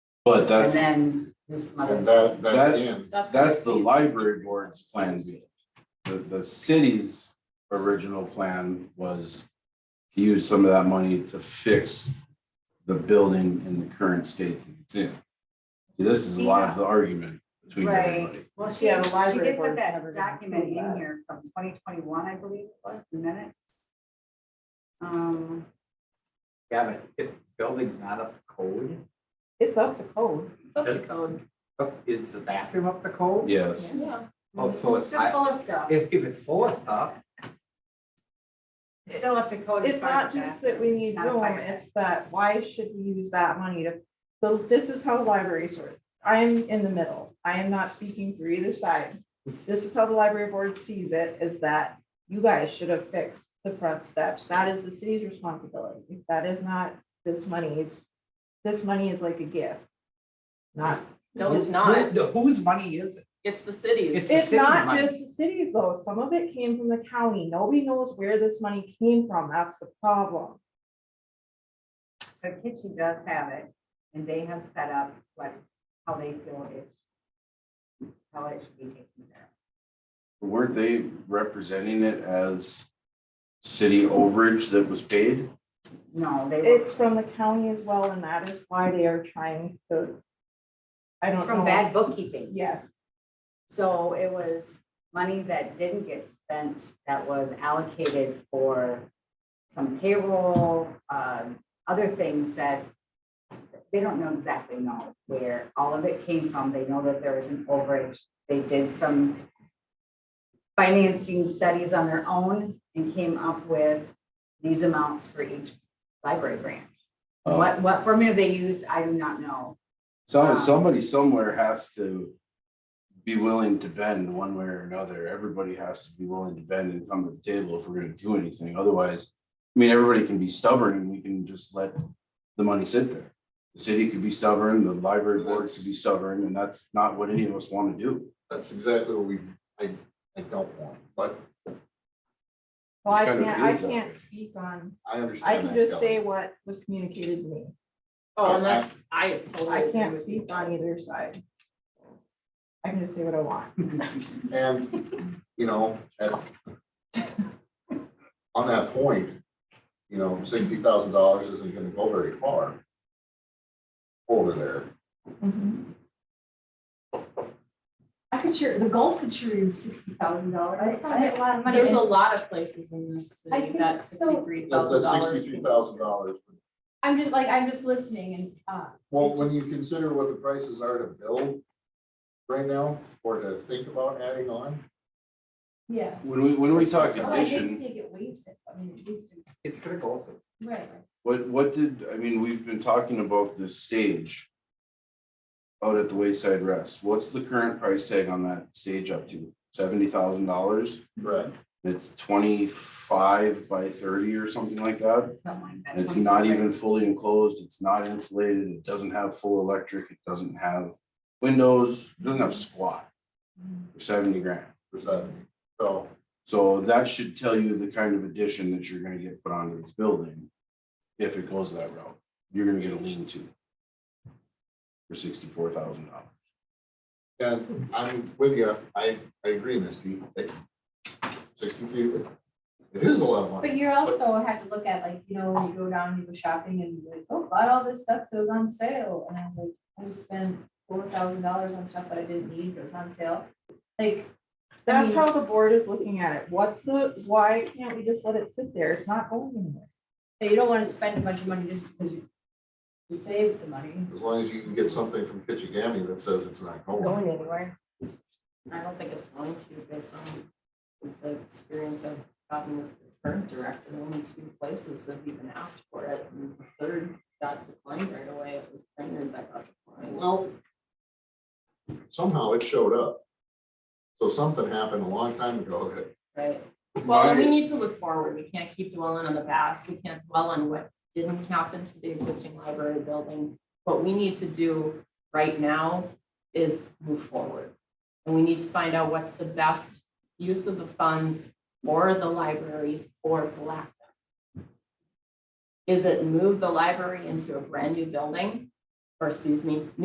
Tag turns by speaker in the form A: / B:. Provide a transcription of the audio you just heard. A: But
B: And
A: that's,
B: then there's some
C: And
B: other.
C: that, that
A: That-
C: again,
A: that's the
B: what it
A: library board's plan B. The, the city's original plan was to use some of that money to fix the building in the current state that it's in. This is a lot of the argument between
B: Right.
A: everybody.
B: Well, she,
D: Yeah, the
B: she
D: library
B: did put
D: board's never
B: that
D: gonna
B: document
D: approve
B: in
D: that.
B: here from twenty twenty-one, I believe it was, the minutes. Um,
E: Yeah, but if the building's not up to code,
D: It's up to code. It's up
E: to
D: code.
E: uh, is the bathroom up to code?
A: Yes,
D: Yeah.
E: Oh, so
B: it's
E: it's,
B: just
E: I-
B: full of stuff,
E: if, if it's full of stuff,
B: it's still up to code as
D: It's
B: far as
D: not just
B: that.
D: that we need
B: It's not a
D: room,
B: fire.
D: it's that why should we use that money to, so this is how libraries work. I am in the middle. I am not speaking for either side. This is how the library board sees it, is that you guys should have fixed the front steps. That is the city's responsibility. That is not this money's, this money is like a gift. Not
F: No, it's
E: Who-
F: not.
E: who- Whose money is it?
F: It's the cities.
E: It's the
D: It's
E: city
D: not
E: money.
D: just the cities though, some of it came from the county, nobody knows where this money came from, that's the problem.
B: But Kitchen does have it, and they have set up what, how they feel it. How it should be taken care
A: weren't they representing it as city overage that was paid?
B: of. No, they. were-
D: It's from the county as well, and that is why they are trying to. I
B: It's
D: don't
B: from bad
D: know,
B: bookkeeping,
D: yes,
B: so it was money that didn't get spent, that was allocated for some payroll, um, other things that they don't know exactly know where all of it came from. They know that there was an overage. They did some financing studies on their own and came up with these amounts for each library branch.
A: Oh.
B: What, what formula they used, I do not know.
A: So
B: Wow.
A: somebody somewhere has to be willing to bend one way or another. Everybody has to be willing to bend and come to the table if we're gonna do anything. Otherwise, I mean, everybody can be stubborn and we can just let the money sit there. The city could be stubborn, the library board could be stubborn, and that's not what any of us wanna do.
C: that's exactly what we, I, I don't want, but
D: well, I
A: Kind of
D: can't, I
A: feels that way.
D: can't speak on,
C: I
D: I
C: understand.
D: can
C: that,
D: just
C: Kelly.
D: say what was communicated to me,
F: Oh, and that's, I totally.
D: I
F: agree
D: can't
F: with
D: speak on either side. I can just say what I want,
C: And, you know, at, on that point, you know, sixty thousand dollars isn't gonna go very far over there.
G: I could sure, the Gulf could sure use sixty thousand dollars. That's not a lot of money.
F: There's a lot of places in this
G: I
F: city
G: think
F: that
G: so.
F: sixty-three
C: That's,
F: thousand
C: that's
F: dollars.
C: sixty-three thousand dollars.
G: I'm just like, I'm just listening and, uh,
C: Well, when you consider what the prices are to build right now, or to think about adding on,
G: yeah.
A: When we, when we talk
G: Well, I didn't
A: addition,
G: think it wasted, I mean, it wasted,
E: It's gonna go also.
G: right.
A: what, what did, I mean, we've been talking about this stage out at the Wayside Rest. What's the current price tag on that stage up to? Seventy thousand dollars?
C: right?
A: It's twenty-five by thirty or something like that.
B: Something like that.
A: And it's not even fully enclosed, it's not insulated, it doesn't have full electric, it doesn't have windows, it doesn't have squat. For seventy grand.
C: for seventy. So,
A: So that should tell you the kind of addition that you're gonna get put onto this building. If it goes that route, you're gonna get a lean-to. For sixty-four thousand dollars.
C: and I'm with you, I, I agree, Misty, Like, sixty feet, it is a lot of money.
G: But you also have to look at like, you know, when you go down, and you go shopping and you're like, oh, bought all this stuff that was on sale. And I was like, I just spent four thousand dollars on stuff that I didn't need, that was on sale. Like, I
D: that's
G: mean-
D: how the board is looking at it, what's the, why can't we just let it sit there, it's not going anywhere.
G: you don't wanna spend a bunch of money just because you you saved the money.
C: As long as you can get something from Kitchigami that says it's not going.
F: anywhere. I don't think it's going to based on the experience I've gotten with the current director. Only two places have even asked for it. And the third got declined right away. It was Brainerd that got declined.
C: Well, somehow it showed up. So something happened a long time ago that,
F: Right. Well,
A: My-
F: and we need to look forward. We can't keep dwelling on the past. We can't dwell on what didn't happen to the existing library building. What we need to do right now is move forward. And we need to find out what's the best use of the funds for the library for Black. Duck. Is it move the library into a brand new building? Or excuse me,